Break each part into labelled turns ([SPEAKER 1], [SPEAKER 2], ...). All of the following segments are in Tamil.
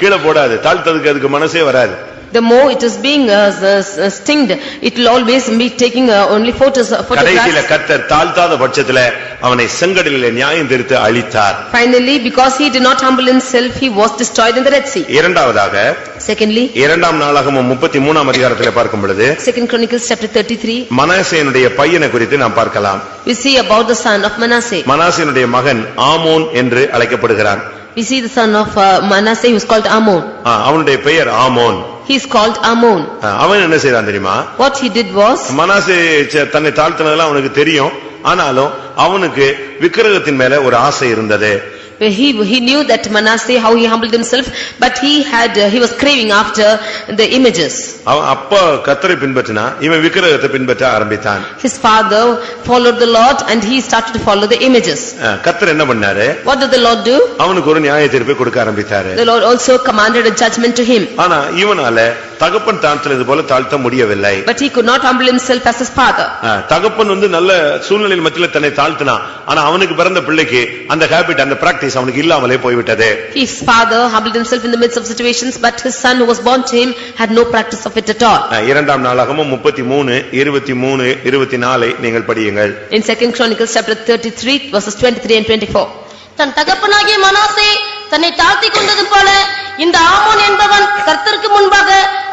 [SPEAKER 1] கீழே போடாது தாழ்த்ததுக்கு அதுக்கு மனசே வராது
[SPEAKER 2] The more it is being uh, s- s- stinged, it will always be taking uh, only photos,
[SPEAKER 1] கடைசியில
[SPEAKER 2] photographs.
[SPEAKER 1] கத்தர் தாழ்த்தாத பட்சத்துல அவனை செங்கடலிலே நியாயம் தீர்த்து அழித்தார்
[SPEAKER 2] Finally, because he did not humble himself, he was destroyed in the Red Sea.
[SPEAKER 1] இரண்டாவதாக
[SPEAKER 2] Secondly,
[SPEAKER 1] இரண்டாம் நாளாகமம் முப்பத்தி மூணாம் அதிகாரத்திலே பார்க்கும் பொழுது
[SPEAKER 2] Second Chronicles chapter thirty-three,
[SPEAKER 1] மனாசேனுடைய பையனை குறித்து நாம் பார்க்கலாம்
[SPEAKER 2] we see about the son of Manasseh.
[SPEAKER 1] மனாசேனுடைய மகன் ஆமோன் என்று அழைக்கப்படுகிறான்
[SPEAKER 2] We see the son of uh, Manasseh who is called Ammon.
[SPEAKER 1] ஆ, அவனுடைய பெயர் ஆமோன்
[SPEAKER 2] He is called Ammon.
[SPEAKER 1] ஆ, அவன் என்ன செய்தான் தெரியுமா
[SPEAKER 2] What he did was,
[SPEAKER 1] Manasseh ச- தன்னை தாழ்த்தினதெல்லாம் அவனுக்கு தெரியும் ஆனாலும் அவனுக்கு விக்கிரகத்தின் மேல ஒரு ஆசை இருந்தது
[SPEAKER 2] he he knew that Manasseh, how he humbled himself, but he had, uh, he was craving after the images.
[SPEAKER 1] அவன் அப்பா கத்தரை பின்பற்றினா இவன் விக்கிரகத்தை பின்பற்ற ஆரம்பித்தான்
[SPEAKER 2] His father followed the Lord and he started to follow the images.
[SPEAKER 1] ஆ, கத்தர் என்ன பண்ணாரு
[SPEAKER 2] What did the Lord do?
[SPEAKER 1] அவனுக்கு ஒரு நியாய தீர்ப்பை கொடுக்க ஆரம்பித்தாரு
[SPEAKER 2] The Lord also commanded a judgment to him,
[SPEAKER 1] ஆனா இவனால தகப்பன் தாழ்த்தினது போல தாழ்த்த முடியவில்லை
[SPEAKER 2] but he could not humble himself as his father.
[SPEAKER 1] ஆ, தகப்பன் வந்து நல்ல சூழ்நிலையில் மத்தியில தன்னை தாழ்த்தினான் ஆனா அவனுக்கு பிறந்த பிள்ளைக்கு அந்த ஹாபிட் அந்த பிராக்டிஸ் அவனுக்கு இல்லாமலே போய்விட்டது
[SPEAKER 2] His father humbled himself in the midst of situations, but his son who was born to him had no practice of it at all.
[SPEAKER 1] ஆ, இரண்டாம் நாளாகமும் முப்பத்தி மூணு இருபத்தி மூணு இருபத்தி நாலை நீங்கள் படியுங்கள்
[SPEAKER 2] In second Chronicles chapter thirty-three verses twenty-three and twenty-four.
[SPEAKER 3] தன் தகப்பனாகிய மனாசே தன்னை தாழ்த்திக் கொண்டது போல இந்த ஆமோன் என்பவன் கர்த்தருக்கு முன்பாக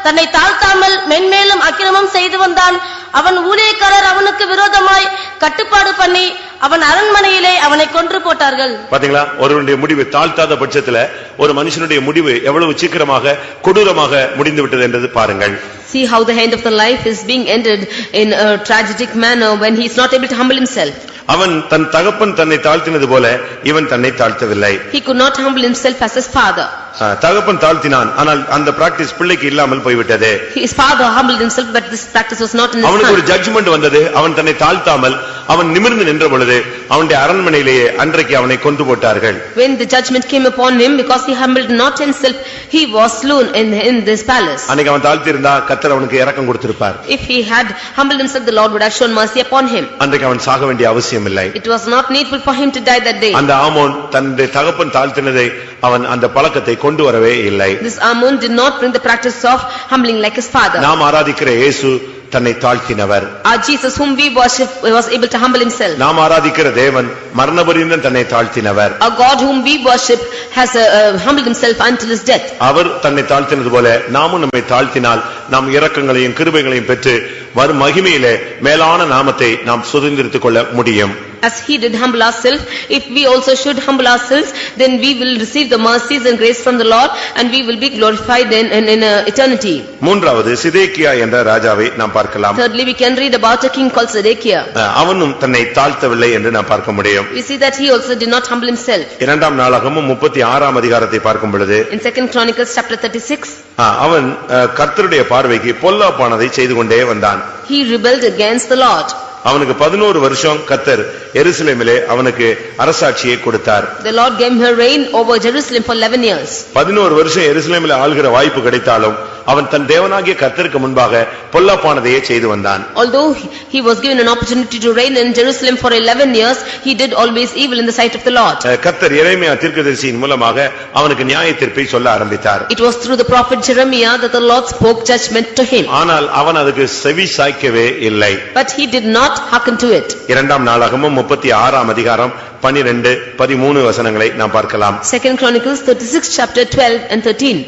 [SPEAKER 3] தன்னை தாழ்த்தாமல் மென்மேலும் அக்கிரமம் செய்து வந்தான் அவன் ஊழியக்காரர் அவனுக்கு விரோதமாய் கட்டுப்பாடு பண்ணி அவன் அரண்மனையிலே அவனை கொன்று போட்டார்கள்
[SPEAKER 1] பாத்தீங்களா ஒருவனுடைய முடிவு தாழ்த்தாத பட்சத்துல ஒரு மனுஷனுடைய முடிவு எவ்வளவு சீக்கிரமாக கொடூரமாக முடிந்து விட்டது என்றது பாருங்கள்
[SPEAKER 2] See how the end of the life is being ended in a tragic manner when he is not able to humble himself.
[SPEAKER 1] அவன் தன் தகப்பன் தன்னை தாழ்த்தினது போல இவன் தன்னை தாழ்த்தவில்லை
[SPEAKER 2] He could not humble himself as his father.
[SPEAKER 1] ஆ, தகப்பன் தாழ்த்தினான் ஆனால் அந்த பிராக்டிஸ் பிள்ளைக்கு இல்லாமல் போய்விட்டது
[SPEAKER 2] His father humbled himself, but this practice was not in his
[SPEAKER 1] அவனுக்கு
[SPEAKER 2] son.
[SPEAKER 1] ஒரு ஜட்ஜ்மெண்ட் வந்தது அவன் தன்னை தாழ்த்தாமல் அவன் நிமிர்ந்து நின்ற பொழுது அவனுடைய அரண்மனையிலேயே அன்றைக்கு அவனை கொண்டு போட்டார்கள்
[SPEAKER 2] When the judgment came upon him, because he humbled not himself, he was slain in, in this palace.
[SPEAKER 1] அன்னைக்கு அவன் தாழ்த்திருந்தா கத்தர் அவனுக்கு இறக்கம் கொடுத்திருப்பார்
[SPEAKER 2] If he had humbled himself, the Lord would have shown mercy upon him.
[SPEAKER 1] அன்றைக்கு அவன் சாக வேண்டிய அவசியம் இல்லை
[SPEAKER 2] It was not needful for him to die that day.
[SPEAKER 1] அந்த ஆமோன் தன்னுடைய தகப்பன் தாழ்த்தினதை அவன் அந்த பழக்கத்தை கொண்டு வரவே இல்லை
[SPEAKER 2] This Ammon did not bring the practice of humbling like his father.
[SPEAKER 1] நாம் ஆராதிக்கிற இயேசு தன்னை தாழ்த்தினவர்
[SPEAKER 2] Our Jesus whom we worship was able to humble himself.
[SPEAKER 1] நாம் ஆராதிக்கிற தேவன் மரணபரியந்தம் தன்னை தாழ்த்தினவர்
[SPEAKER 2] Our God whom we worship has uh, uh, humbled himself until his death.
[SPEAKER 1] அவர் தன்னை தாழ்த்தினது போல நாமும் நம்மை தாழ்த்தினால் நாம் இரக்கங்களையும் கிருபைகளையும் பெற்று வரும் மகிமையிலே மேலான நாமத்தை நாம் சுதந்திரித்துக் கொள்ள முடியும்
[SPEAKER 2] As he did humble ourselves, if we also should humble ourselves, then we will receive the mercies and grace from the Lord and we will be glorified in, in, in uh, eternity.
[SPEAKER 1] மூன்றாவது சிதேக்கியா என்ற ராஜாவை நாம் பார்க்கலாம்
[SPEAKER 2] Thirdly, we can read about a king called Zedekiah.
[SPEAKER 1] அஹ், அவனும் தன்னை தாழ்த்தவில்லை என்று நாம் பார்க்க முடியும்
[SPEAKER 2] We see that he also did not humble himself.
[SPEAKER 1] இரண்டாம் நாளாகமும் முப்பத்தி ஆறாம் அதிகாரத்தை பார்க்கும் பொழுது
[SPEAKER 2] In second Chronicles chapter thirty-six,
[SPEAKER 1] அஹ், அவன் அஹ், கர்த்தருடைய பார்வைக்கு பொல்லாப்பானதை செய்து கொண்டே வந்தான்
[SPEAKER 2] he rebelled against the Lord.
[SPEAKER 1] அவனுக்கு பதினோரு வருஷம் கத்தர் எருசலேமிலே அவனுக்கு அரசாட்சியை கொடுத்தார்
[SPEAKER 2] The Lord gave her reign over Jerusalem for eleven years.
[SPEAKER 1] பதினோரு வருஷம் எருசலேமில் ஆள்கிற வாய்ப்பு கிடைத்தாலும் அவன் தன் தேவனாகிய கர்த்தருக்கு முன்பாக பொல்லாப்பானதையே செய்து வந்தான்
[SPEAKER 2] Although he he was given an opportunity to reign in Jerusalem for eleven years, he did always evil in the sight of the Lord.
[SPEAKER 1] அஹ் கர்த்தர் இறைமையா தீர்க்கதரிசியின் மூலமாக அவனுக்கு நியாய தீர்ப்பை சொல்ல ஆரம்பித்தார்
[SPEAKER 2] It was through the prophet Jeremiah that the Lord spoke judgment to him,
[SPEAKER 1] ஆனால் அவன் அதுக்கு செவி சாய்க்கவே இல்லை
[SPEAKER 2] but he did not hearken to it.
[SPEAKER 1] இரண்டாம் நாளாகமும் முப்பத்தி ஆறாம் அதிகாரம் பனிரெண்டு பதிமூணு வசனங்களை நாம் பார்க்கலாம்
[SPEAKER 2] Second Chronicles thirty-six chapter twelve and thirteen.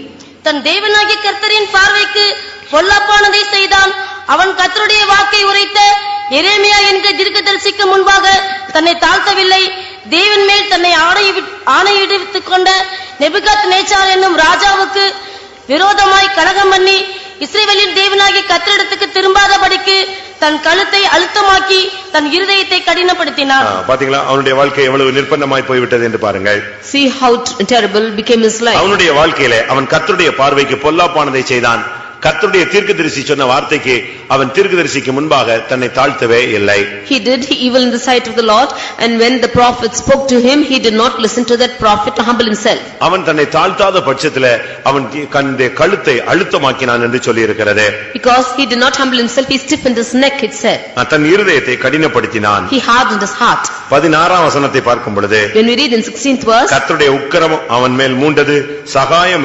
[SPEAKER 3] தன் தேவனாகிய கர்த்தரின் பார்வைக்கு பொல்லாப்பானதை செய்தான் அவன் கர்த்தருடைய வாக்கை உரைத்த எரேமியா என்கிற தீர்க்கதரிசிக்கு முன்பாக தன்னை தாழ்த்தவில்லை தேவன் மேல் தன்னை ஆணையிடு- ஆணையிடுவித்துக் கொண்ட நெபுகாத் நேச்சார் என்னும் ராஜாவுக்கு விரோதமாய் கலகம் பண்ணி இஸ்ரேவேலின் தேவனாகிய கர்த்தரிடத்துக்கு திரும்பாதபடிக்கு தன் கழுத்தை அழுத்தமாக்கி தன் இருதயத்தை கடினப்படுத்தினான்
[SPEAKER 1] அஹ் பாத்தீங்களா அவனுடைய வாழ்க்கை எவ்வளவு நிர்பந்தமாய் போய்விட்டது என்று பாருங்கள்
[SPEAKER 2] See how t- terrible became his life.
[SPEAKER 1] அவனுடைய வாழ்க்கையிலே அவன் கர்த்தருடைய பார்வைக்கு பொல்லாப்பானதை செய்தான் கர்த்தருடைய தீர்க்கதரிசி சொன்ன வார்த்தைக்கு அவன் தீர்க்கதரிசிக்கு முன்பாக தன்னை தாழ்த்தவே இல்லை
[SPEAKER 2] He did evil in the sight of the Lord, and when the prophet spoke to him, he did not listen to that prophet to humble himself.
[SPEAKER 1] அவன் தன்னை தாழ்த்தாத பட்சத்துல அவன் கண்டு கழுத்தை அழுத்தமாக்கினான் என்று சொல்லியிருக்கிறது
[SPEAKER 2] Because he did not humble himself, he stiffened his neck, it said.
[SPEAKER 1] தன் இருதயத்தை கடினப்படுத்தினான்
[SPEAKER 2] He hardened his heart.
[SPEAKER 1] பதினாறாம் வசனத்தை பார்க்கும் பொழுது
[SPEAKER 2] When we read in sixteenth verse.
[SPEAKER 1] கர்த்தருடைய உக்கிரம் அவன் மேல் மூண்டது சகாயம்